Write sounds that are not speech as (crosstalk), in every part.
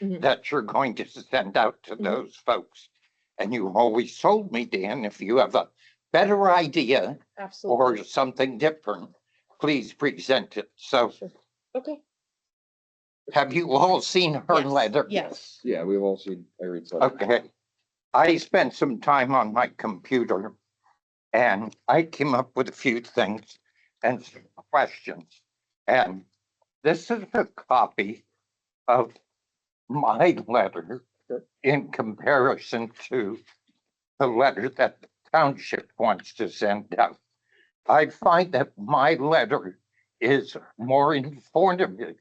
Mhm. that you're going to send out to Mhm. those folks. And you always told me, Dan, if you have a better idea or Absolutely. something different, please present it. So Sure. Okay, have you all seen her Yes, letter? yes. Yeah, we've all seen Irene's letter. Okay. I spent some time on my computer and I came up with a few things and some questions. And this is a copy of my letter in comparison to the letter that the township wants to send out. I find that my letter is more informative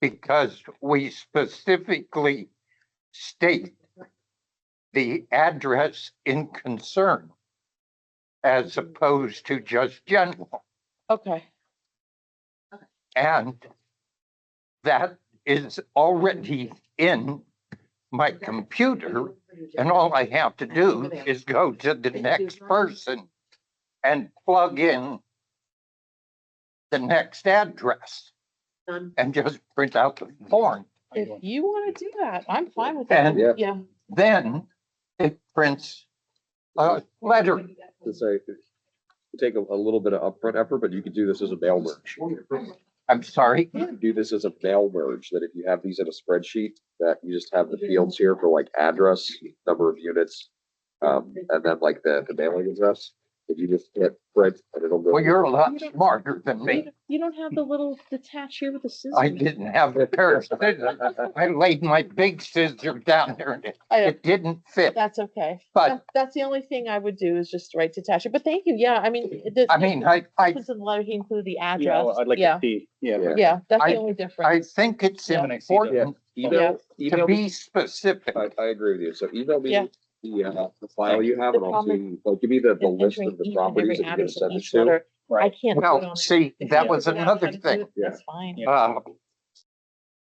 because we specifically state the address in concern as opposed to just general. Okay, And that is already in my computer and all I have to do is go to the next person and plug in the next address and just print out the form. if you want to do that, I'm fine with that. And Yeah, Yeah, then it prints a letter to say, it would take a, a little bit of upfront effort, but you could do this as a mail merge. I'm sorry, You could do this as a mail merge, that if you have these in a spreadsheet, that you just have the fields here for like address, number of units, um, and then like the, the mailing address. If you just hit print and it'll go. well, you're a lot smarter than you me. don't- you don't have the little detach here with the scissors. I didn't have a pair of scissors. I laid my big scissor down there and it- I don't- it didn't fit. That's okay. But- That- That's the only thing I would do is just write detach it, but thank you, yeah, I mean. it does- I mean, I, I, Since the letter he included the Yeah, address, well, I'd like yeah, to see, yeah. Yeah. yeah, that's I- the only I difference. think it's Yeah. important (laughs) Email, to email, me- be specific. I, I agree with you. So email Yeah. me the, uh, the file you have The and I'll problem see, like, give me the, the And list entering of the each and every properties that you're gonna address in send it each to. letter, I can't. do it Well, on- see, if that you was figure out how another to do thing. it, That's fine. Yeah. Uh,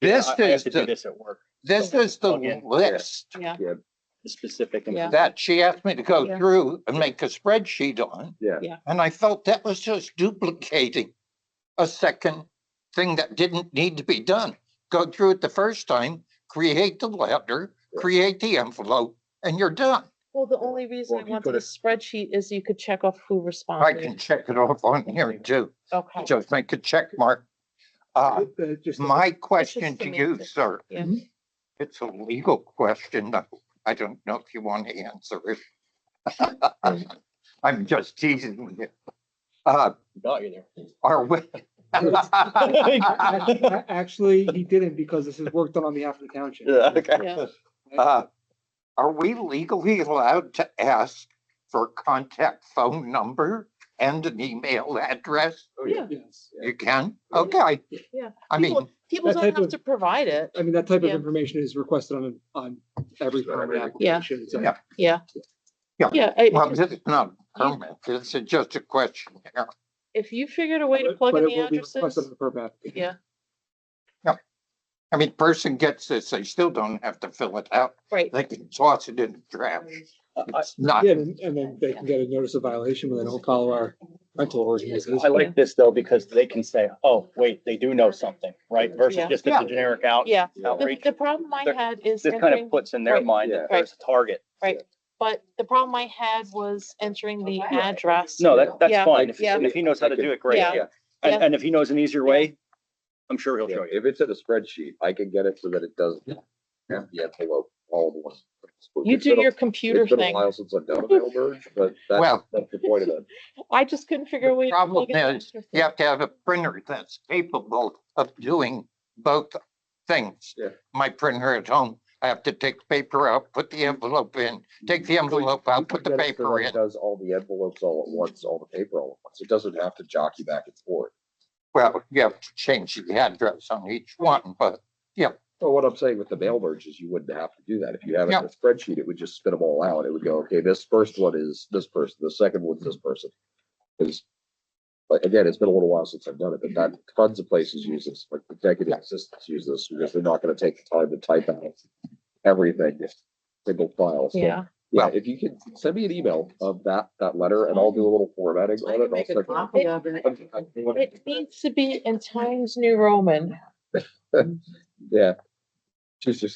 This I- I have is to do the, This at work, this is the Okay. list Yeah, the specific. and- Yeah. that she asked me to go Yeah. through and make a spreadsheet on. Yeah. Yeah. And I felt that was just duplicating a second thing that didn't need to be done. Go through it the first time, create the letter, create the envelope, and you're done. well, the only reason I if you wanted a could've- spreadsheet is you could check off who I responded. can check it off on here too. Okay, Just make a check mark. Uh, my question to you, semantics, sir. yeah. It's a legal question. though. I don't know if you want to answer it. (laughs) I'm just teasing you. Uh, Got you there. are we? (laughs) (laughs) Ac- ac- Actually, he didn't because this is work done on behalf of the township. Yeah, okay. yeah, Uh, Are we legally allowed to ask for contact phone number and an email address? Oh, yeah. Yes. You can? Okay. Yeah. I mean, People people That don't type have of- to provide it, I mean, that type of Yeah. information is requested on, on every permit Yeah. application. so- Yeah. yeah. Yeah. Yeah, I- well, this is not permanent. This is just a question. if you figured a way to But- plug but in it the will be requested on addresses, the permit application. yeah, I mean, person gets this, they still don't have to fill it out. right, They can toss it in the trash. I, It's not, Yeah, and, and then they can get a notice of violation when they don't follow our rental ordinances. I like this though, because they can say, oh, wait, they do know something, right? Versus Yeah. just Yeah. it's a generic out. yeah. The, Outreach. the problem I There- had is This kind entering of puts in their Right. mind Yeah. that there's a target. But the problem I had was entering the address. No, that, Yeah. that's fine. If, Yeah. and if he knows how to do it, great. Yeah. And, and if he knows an easier way, I'm sure he'll Yeah, show you. If it's in a spreadsheet, I can get it so that it does have the envelope all in one. You It's do been a- your computer It's been a thing. while since I've done a mail merge, but that's, Well- that's the point of it. I just couldn't figure a the way. to problem plug in the is, extra you thing. have to have a printer that's capable of doing both things. Yeah. My printer at home, I have to take the paper out, put the envelope in, (laughs) take the envelope out, put the Get it so paper that it in. Does all the envelopes all at once, all the paper all at once. It doesn't have to jockey back and forth. Well, you have to change the address on each one, but So what I'm saying with the mail merge is you wouldn't have to do that. If you have it in Yeah. a spreadsheet, it would just spit them all out. It would go, okay, this first one is this person, the second one's this person. Is, but again, it's been a little while since I've done it, but that tons of places use this, like executive assistants use this, because they're not gonna take the time to type out everything, just single file. So, Yeah, Yeah, if you could send me an email of that, that letter and I'll do a little formatting I can on it. and I'll make a send copy. it. it needs to be in Times New Roman. Yeah, Two sixty